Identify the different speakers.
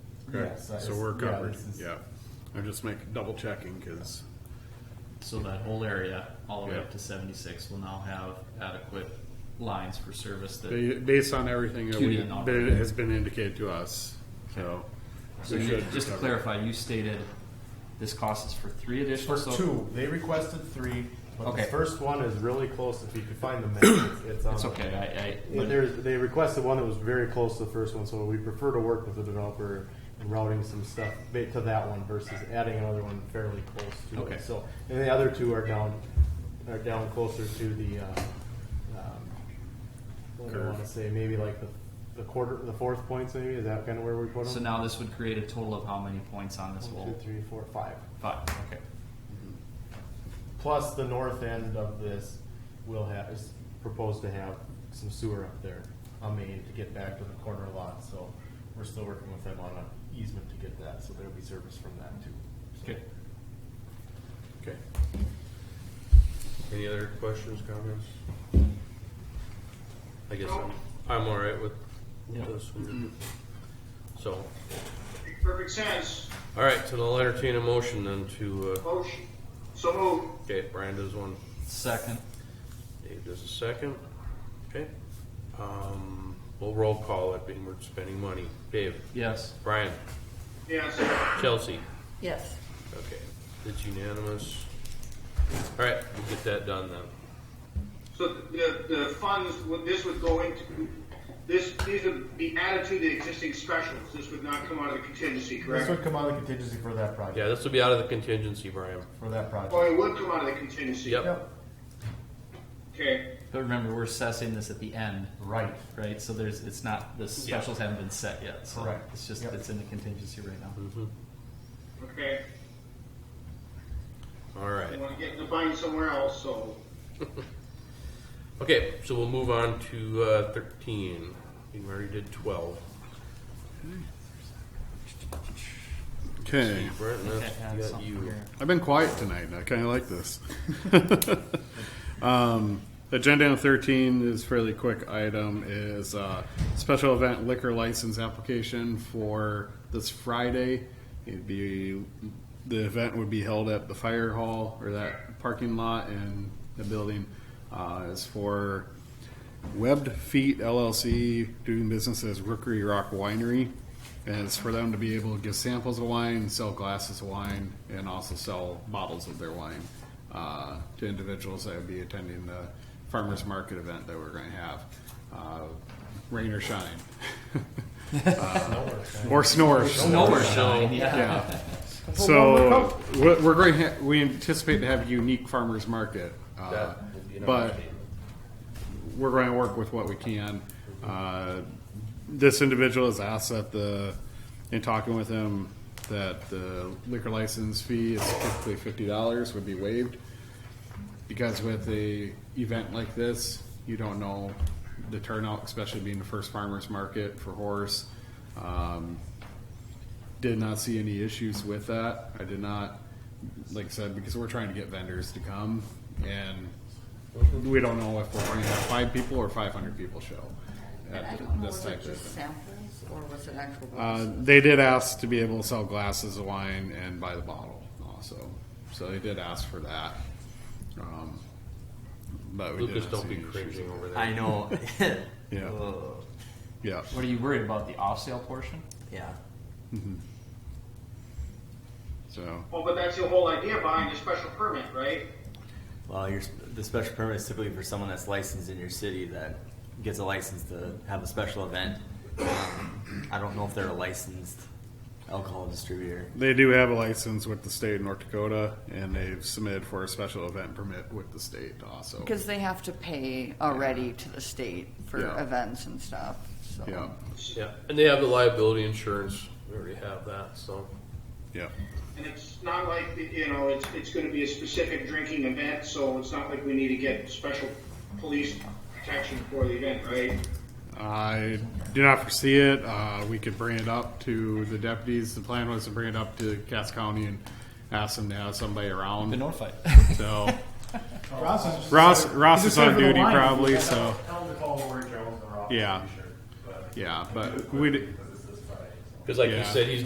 Speaker 1: so.
Speaker 2: So we're
Speaker 1: yeah,
Speaker 2: covered,
Speaker 1: this is-
Speaker 2: yeah. I'm just making, double checking, cause,
Speaker 3: So that whole area, all the way
Speaker 2: Yeah.
Speaker 3: up to seventy-six, will now have adequate lines for service that,
Speaker 2: ba- based on everything that
Speaker 3: Cutie
Speaker 2: we,
Speaker 3: and all.
Speaker 2: that has been indicated to us, so.
Speaker 3: so
Speaker 2: we
Speaker 3: you-
Speaker 2: should
Speaker 3: just to
Speaker 2: cover it.
Speaker 3: clarify, you stated this cost is for three additional,
Speaker 1: For
Speaker 3: so.
Speaker 1: two, they requested three, but the
Speaker 3: Okay.
Speaker 1: first one is really close, if you could find the minutes, it's on.
Speaker 3: It's
Speaker 1: the-
Speaker 3: okay, I, I.
Speaker 1: But there's, they requested one that was very close to the first one, so we prefer to work with the developer in routing some stuff ba- to that one versus adding another one fairly close to
Speaker 3: Okay.
Speaker 1: it. So, and the other two are down, are down closer to the, uh, um, what do I
Speaker 2: Curve.
Speaker 1: wanna say, maybe like the, the quarter, the fourth points maybe, is that kinda where we put them?
Speaker 3: So now this would create a total of how many points on this
Speaker 1: One,
Speaker 3: whole?
Speaker 1: two, three, four, five.
Speaker 3: Five, okay.
Speaker 1: Plus the north end of this will have, is proposed to have some sewer up there on Main to get back to the corner lot, so we're still working with them on an easement to get that, so there'll be service from that too.
Speaker 3: Okay.
Speaker 2: Okay.
Speaker 4: Any other questions, comments? I guess I'm, I'm all right with
Speaker 3: Yeah.
Speaker 4: this one. So,
Speaker 5: Perfect sense.
Speaker 4: all right, so I'll entertain a motion then to, uh,
Speaker 5: Motion. So moved.
Speaker 4: okay, Brian does one,
Speaker 3: Second,
Speaker 4: Dave does a second. Okay. Um, we'll roll call it being we're spending money. Dave,
Speaker 3: yes.
Speaker 4: Brian,
Speaker 5: Yes.
Speaker 4: Chelsea.
Speaker 6: Yes.
Speaker 4: Okay, it's unanimous. All right, we'll get that done then.
Speaker 5: So the, the funds, would- this would go into, this, these would be added to the existing specials. This would not come out of the contingency,
Speaker 1: This
Speaker 5: correct?
Speaker 1: would come out of the contingency for that
Speaker 4: Yeah,
Speaker 1: project,
Speaker 4: this will be out of the contingency, Brian.
Speaker 1: for that project.
Speaker 5: Oh, it would come out of the contingency?
Speaker 4: Yep.
Speaker 1: Yep,
Speaker 5: Okay.
Speaker 3: But remember, we're assessing this at the end,
Speaker 1: right,
Speaker 3: right? So there's, it's not, the specials haven't been set yet, so.
Speaker 1: Correct.
Speaker 3: It's just,
Speaker 1: Yep.
Speaker 3: it's in the contingency right now.
Speaker 5: Okay.
Speaker 4: All right.
Speaker 5: I want to get in the bind somewhere else, so.
Speaker 4: Okay, so we'll move on to uh, 13. We already did 12.
Speaker 2: Okay,
Speaker 4: Brent,
Speaker 3: Can't
Speaker 4: and that's
Speaker 3: add
Speaker 4: you got
Speaker 3: something
Speaker 4: you.
Speaker 3: here.
Speaker 2: I've been quiet tonight, and I kinda like this. Um, agenda item thirteen is fairly quick item, is, uh, special event liquor license application for this Friday. It'd be, the event would be held at the fire hall, or that parking lot in the building. Uh, it's for Webbed Feet LLC doing business as Rookery Rock Winery. And it's for them to be able to give samples of wine, sell glasses of wine, and also sell bottles of their wine uh, to individuals that would be attending the farmers market event that we're going to have. Uh, rain or shine. uh, or snore.
Speaker 3: Nowhere
Speaker 4: So-
Speaker 3: shine, yeah.
Speaker 2: Yeah. So we're we're going, to ha- we anticipate to have a unique farmers market. uh,
Speaker 4: That would be an
Speaker 2: But
Speaker 4: understatement.
Speaker 2: we're going to work with what we can. Uh, this individual has asked that the, in talking with him, that the liquor license fee is typically fifty dollars would be waived. Because with a event like this, you don't know the turnout, especially being the first farmer's market for horse. Um, did not see any issues with that. I did not, like I said, because we're trying to get vendors to come and we don't know if we're going to have five people or five hundred people show.
Speaker 6: And I
Speaker 2: at
Speaker 6: don't know,
Speaker 2: this
Speaker 6: was it
Speaker 2: type of
Speaker 6: just
Speaker 2: thing.
Speaker 6: samples or was it actual?
Speaker 2: Uh,
Speaker 6: glasses?
Speaker 2: they did ask to be able to sell glasses of wine and buy the bottle also. So they did ask for that. Um, but we
Speaker 4: Lucas,
Speaker 2: did
Speaker 4: don't be cringing over there.
Speaker 7: I know.
Speaker 2: Yeah.
Speaker 7: Ugh.
Speaker 2: Yeah.
Speaker 3: What are you worried about, the off-sale portion?
Speaker 7: Yeah.
Speaker 2: So
Speaker 5: Well, oh, but that's the whole idea behind the special permit, right?
Speaker 7: Well, your, the special permit is typically for someone that's licensed in your city that gets a license to have a special event. Um, I don't know if they're a licensed alcohol distributor.
Speaker 2: they do have a license with the state of North Dakota and they've submitted for a special event permit with the state also.
Speaker 6: Because they have to pay already to the state for
Speaker 2: Yeah.
Speaker 6: events and stuff, so.
Speaker 2: Yeah.
Speaker 4: Yeah, and they have the liability insurance. We already have that, so.
Speaker 2: Yeah.
Speaker 5: And it's not like, you know, it's, it's going to be a specific drinking event, so it's not like we need to get special police protection for the event, right?
Speaker 2: I do not foresee it. Uh, we could bring it up to the deputies. The plan was to bring it up to Cass County and ask them to have somebody
Speaker 3: Been
Speaker 2: around.
Speaker 3: notified.
Speaker 2: So
Speaker 1: Ross is.
Speaker 2: Ross, Ross is on duty probably. So
Speaker 1: Tell them to call Lori Jones or I'll
Speaker 2: Yeah.
Speaker 1: be sure, but-
Speaker 2: yeah, but we.
Speaker 4: Because like you
Speaker 2: Yeah.
Speaker 4: said, he's